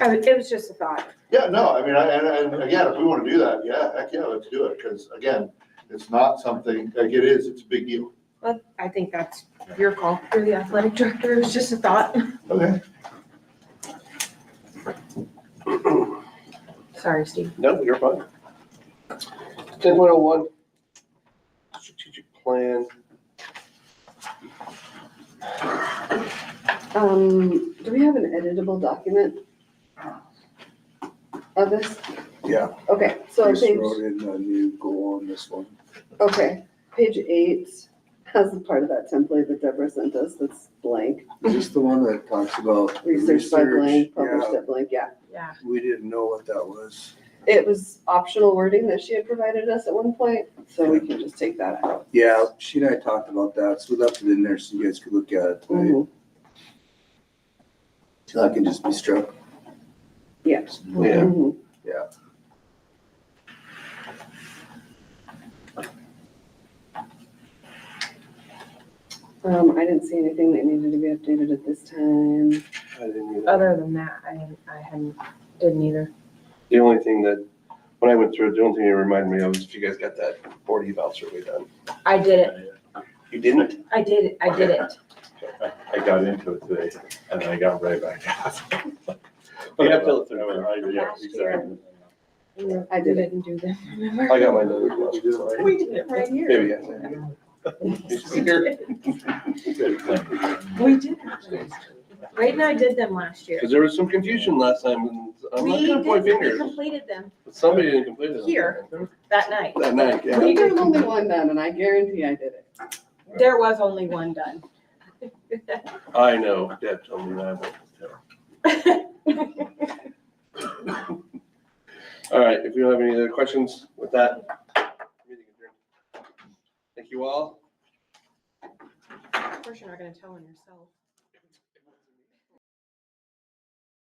I- It was just a thought. Yeah, no, I mean, I- and, and again, if we want to do that, yeah, heck yeah, let's do it, because again, it's not something, like it is, it's a big deal. Well, I think that's your call. You're the athletic director. It was just a thought. Okay. Sorry, Steve. No, you're fine. Ten point oh one, strategic plan. Um, do we have an editable document of this? Yeah. Okay, so on Just page, wrote in a new goal on this one. okay, page eight has a part of that template that Deborah sent us that's blank, Is this the one that talks about? research by blank, published Yeah, at blank, yeah. Yeah. we didn't know what that was. It was optional wording that she had provided us at one point, so we can just take that out. Yeah, she and I talked about that, so we left it in there so you guys could look at it tonight. Mhm. So that can just be struck. Yeah. Yeah. Mhm. Um, I didn't see anything that needed to be updated at this time. I didn't either. Other than that, I hadn't, I hadn't, didn't either. The only thing that, when I went through it, the only thing it reminded me of is if you guys got that board eval survey done. I did it. You didn't? I did, it. I did it. I got into it today and then I got right back out. You have to look I through it. was- yeah, exactly. I did it. Didn't do that. I got my notes. last We did it right here. Maybe, yeah. It's here. Good thing. We did. it. Wade and I did them last year. Cause there was some confusion last time and I'm not We gonna did, point we fingers, completed them but somebody didn't complete it. Here. that night. That night, yeah. Well, There's only one done, and I guarantee I did it. There was only one done. I know, Deb told me that. but- All right, if you don't have any other questions with that. meeting adjourned. Thank you all. Of course, you're not gonna tell on yourself.